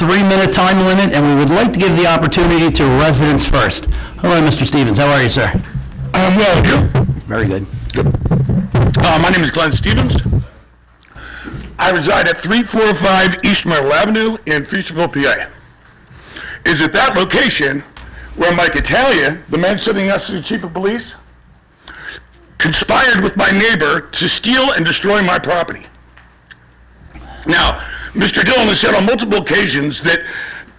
three-minute time limit, and we would like to give the opportunity to residents first. Hello, Mr. Stevens, how are you, sir? I'm Um, well here. Very good. Uh, my name is Glenn Stevens. I reside at 345 East Myrtle Avenue in Feasterville, PA. Is it that location where Mike Italia, the man sitting next to the chief of police, conspired with my neighbor to steal and destroy my property? Now, Mr. Dillon has said on multiple occasions that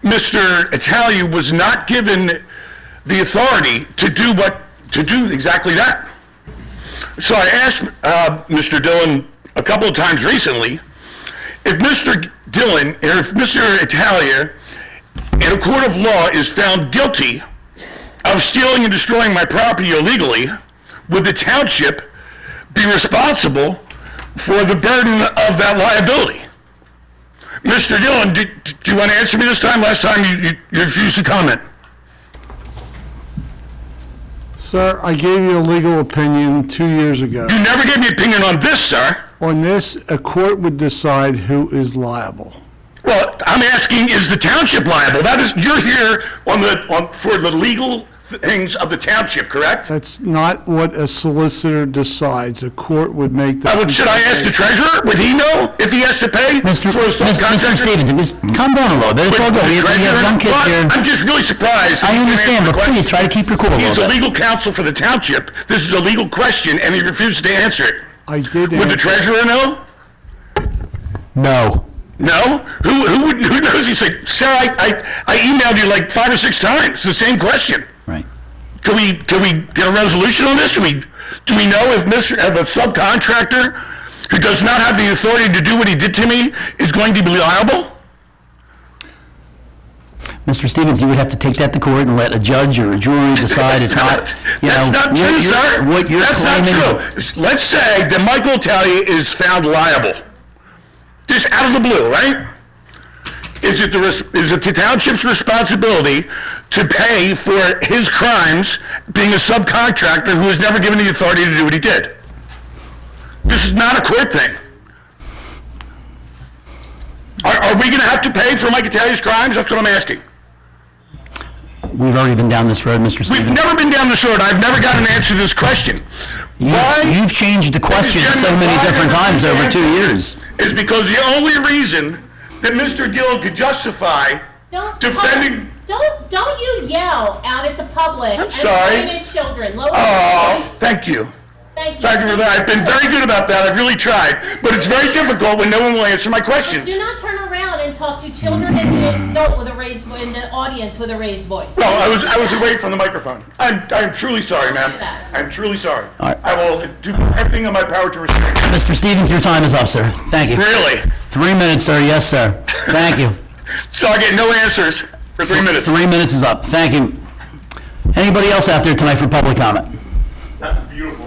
Mr. Italia was not given the authority to do what, to do exactly that. So I asked uh, Mr. Dillon a couple of times recently if Mr. Dillon, or if Mr. Italia, in a court of law, is found guilty of stealing and destroying my property illegally, would the township be responsible for the burden of that liability? Mr. Dillon, do, do you want to answer me this time? Last time you, you, you refused to comment. Sir, I gave you a legal opinion two years ago. You never gave me opinion on this, sir. On this, a court would decide who is liable. Well, I'm asking, is the township liable? That is, you're here on the, on, for the legal things of the township, correct? Uh, That's not what a solicitor decides. A court would make I that. would- Should I ask the treasurer? Would he know if he has to pay for a Mr. Mr. subcontractor? Stevens, just calm down a little bit, it's all good, we have we have young kids Well, here. I'm just really surprised. that I you didn't understand, answer but the question. please try to keep your cool a He's little the bit. legal counsel for the township. This is a legal question, and he refuses to answer it. I did Would the answer. treasurer know? No. No? Who, who would, who knows? He's like, sir, I, I, I emailed you like five or six times, the same question. Right. Can we, can we get a resolution on this? Do we, do we know if Mr., if a subcontractor who does not have the authority to do what he did to me is going to be liable? Mr. Stevens, you would have to take that to court and let a judge or a jury decide it's not, you know... That's not what true, you're- sir. What you're That's not claiming... true. Let's say that Michael Italia is found liable, just out of the blue, right? Is it the, res- is it the township's responsibility to pay for his crimes being a subcontractor who was never given the authority to do what he did? This is not a court thing. Are, are we gonna have to pay for Mike Italia's crimes? That's what I'm asking. We've already been down this road, Mr. We've Stevens. never been down this road. I've never got an answer to this question. You- Why You've changed the question so gentleman, many why different haven't times you over two answered? years. is because the only reason that Mr. Dillon could justify Don't- defending. Don't, don't you yell out at the public. I'm sorry. And pointed children, lower your Oh, voice. thank you. Thank you. Thank you for that. I've been very good about that. I've really tried. But it's very difficult when no one will answer my questions. Do not turn around and talk to children and the adult with a raised, vo- in the audience with a raised voice. No, I was, I was away from the microphone. I'm, I'm truly sorry, ma'am. I'm truly sorry. All right. I will do everything in my power to restrain. you. Mr. Stevens, your time is up, sir. Thank you. Really? Three minutes, sir. Yes, sir. Thank you. So I get no answers for three minutes. Three minutes is up. Thank you. Anybody else out there tonight for public comment? That's beautiful.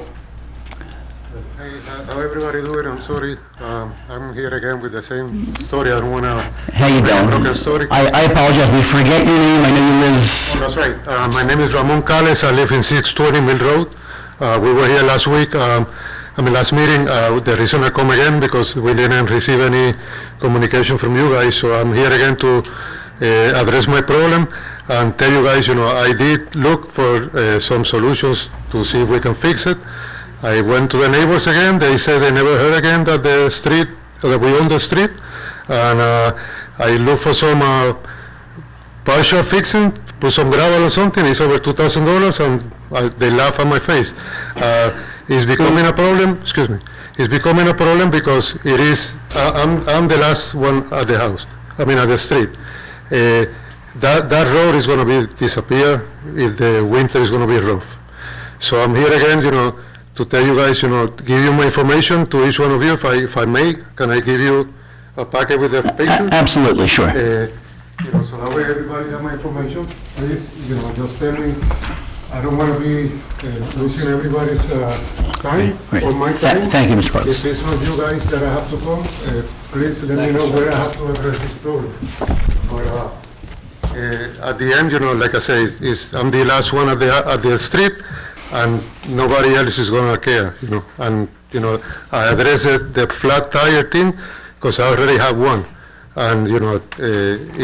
Hey, how- how everybody doing? I'm sorry. Um, I'm here again with the same story. I don't wanna, How you Broken doing? story. I, I apologize. We forget your name. I know you live, that's right. Uh, my name is Ramon Calles. I live in six twenty Mill Road. Uh, we were here last week, um, I mean, last meeting. Uh, the reason I come again because we didn't receive any communication from you guys, so I'm here again to, uh, address my problem and tell you guys, you know, I did look for, uh, some solutions to see if we can fix it. I went to the neighbors again, they said they never heard again that the street, that we own the street, and uh, I looked for some uh, partial fixing, put some gravel or something, it's over two thousand dollars, and I- they laugh at my face. Uh, It's becoming a problem, excuse me, it's becoming a problem because it is, I- I'm, I'm the last one at the house, I mean, at the street. Uh, That, that road is gonna be, disappear if the winter is gonna be rough. So I'm here again, you know, to tell you guys, you know, give you my information to each one of you, if I, if I may, can I give you a packet with the A- pictures? absolutely, sure. Uh, You know, so that way everybody have my information, please, you know, just tell me, I don't wanna be uh, losing everybody's uh, time Great, or my great. Tha- time. thank you, Mr. Parks. If it's not you guys that I have to come, uh, please let me know where I have to address this problem. But, uh, uh, at the end, you know, like I say, is, I'm the last one at the, at the street, and nobody else is gonna care, you know, and, you know, I addressed the flat tire thing, because I already have one, and, you know, uh,